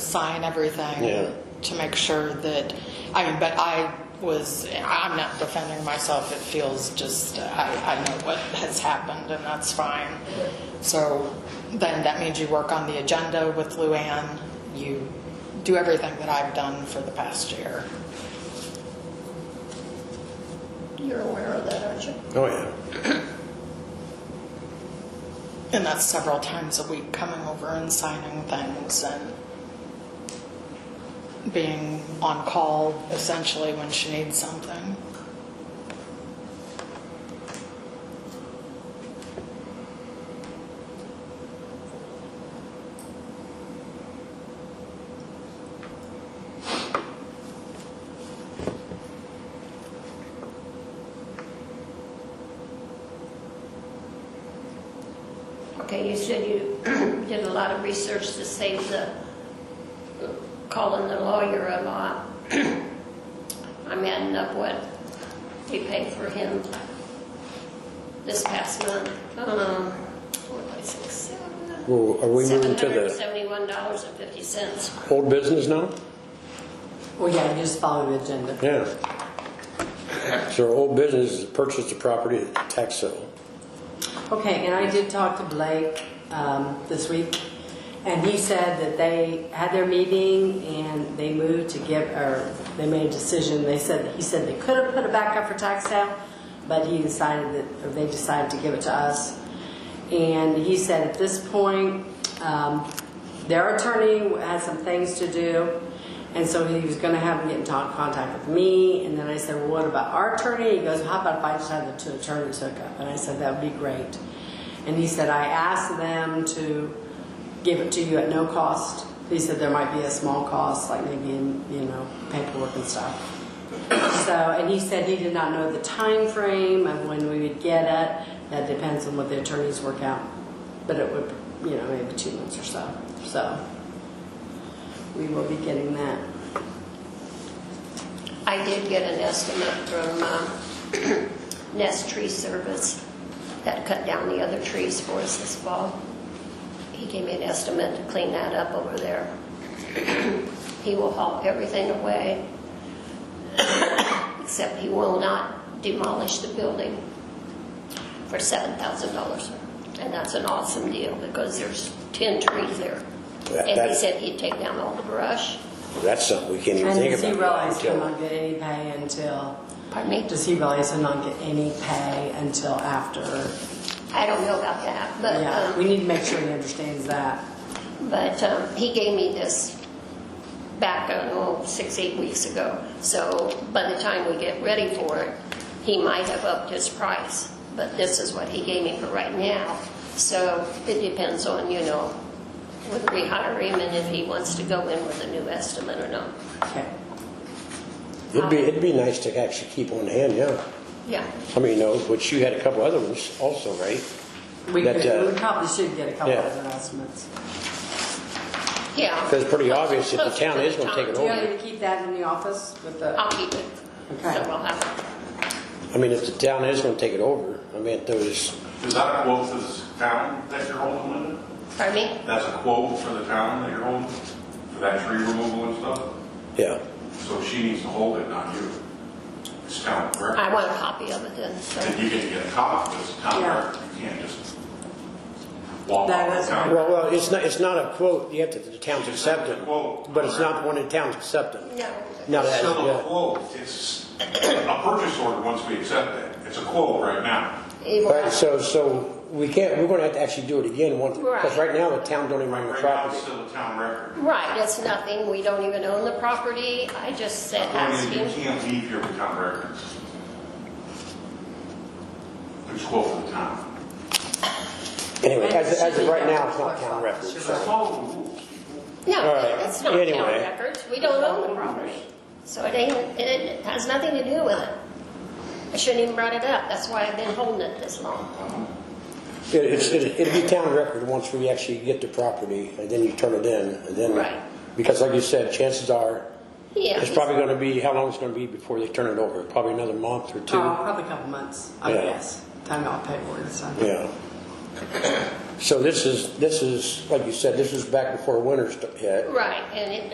sign everything Yeah. to make sure that, I mean, but I was, I'm not defending myself. It feels just, I, I know what has happened and that's fine. So then that means you work on the agenda with Luann. You do everything that I've done for the past year. You're aware of that, aren't you? Oh, yeah. And that's several times a week coming over and signing things and being on call essentially when she needs something. Okay, you said you did a lot of research to save the, calling the lawyer a lot. I'm adding up what we paid for him this past month. Um, four, five, six, seven. Well, are we moving to the $771.50. old business now? Well, yeah, you just follow the agenda. Yeah. So our old business is purchase the property at tax sale. Okay, and I did talk to Blake um, this week, and he said that they had their meeting and they moved to give, or they made a decision. They said, he said they could have put it back up for tax sale, but he decided that, or they decided to give it to us. And he said at this point, um, their attorney had some things to do, and so he was going to have him get in talk, contact with me. And then I said, Well, what about our attorney? He goes, How about if I just have the two attorneys hook up? And I said, That would be great. And he said, I asked them to give it to you at no cost. He said there might be a small cost, like maybe in, you know, paperwork and stuff. So, and he said he did not know the time frame of when we would get it. That depends on what the attorneys work out, but it would, you know, maybe two months or so. So, we will be getting that. I did get an estimate from um, Nest Tree Service that cut down the other trees for us this fall. He gave me an estimate to clean that up over there. He will haul everything away, except he will not demolish the building for $7,000. And that's an awesome deal because there's 10 trees there. That- And he that- said he'd take down all the brush. That's something we can't even And think does about. he realize he'll until- not get any pay until, Pardon me? does he realize he'll not get any pay until after? I don't know about that, but, Yeah, we um, need to make sure he understands that. but um, he gave me this back, I don't know, six, eight weeks ago. So by the time we get ready for it, he might have upped his price, but this is what he gave me for right now. So it depends on, you know, whether we hire him and if he wants to go in with a new estimate or not. Okay. It'd be, it'd be nice to actually keep on hand, yeah. Yeah, I mean, you know, which you had a couple other ones also, right? We That, uh, could, we probably should get a couple yeah. other estimates. yeah. Because it's pretty obvious that the town is gonna take it Do you want over. me to keep that in the office with the, I'll keep it. Okay. So we'll have I mean, if the town is gonna take it over, I mean, if there's, Is that a quote for the town that you're holding, Linda? it. Pardon me? That's a quote for the town that you're holding, for that tree removal and stuff? yeah. So she needs to hold it, not you. It's town record. I want a copy of it then, so. And you can get a copy, but it's town Yeah. record. You can't just walk That off is- the town. Well, well, it's not, it's not a quote, you have to, the town's accept it, Quote. but it's not one the town's accepting. No. No, It's that, still a yeah. quote. It's a purchase order once we accept it. It's a quote right now. It will- Right, so, so we can't, we're gonna have to actually do it again once, because Right. right now the town don't even own the Right now, property. it's still a town record. Right, it's nothing, we don't even own the property, I just said, I mean, asking. Oh, You can't leave here with town records. There's a quote for the town. Anyway, And as, it as should of be right down now, to it's not clerk's town office. records. You're Just right. follow the rules. All No, right, it's not town anyway. records, we don't own the property. So it ain't, it has nothing to do with it. I shouldn't even brought it up, that's why I've been holding it this long. It, it's, it- it'll be town record once we actually get the property, and then you turn it in, and then. Right. Because like you said, chances are, Yeah. it's probably gonna be, how long it's gonna be before they turn it over? Probably another month or oh, two? probably a couple months, I Yeah. guess. Time out paperwork, so. Yeah. So this is, this is, like you said, this was back before winter st- hit. Right, and it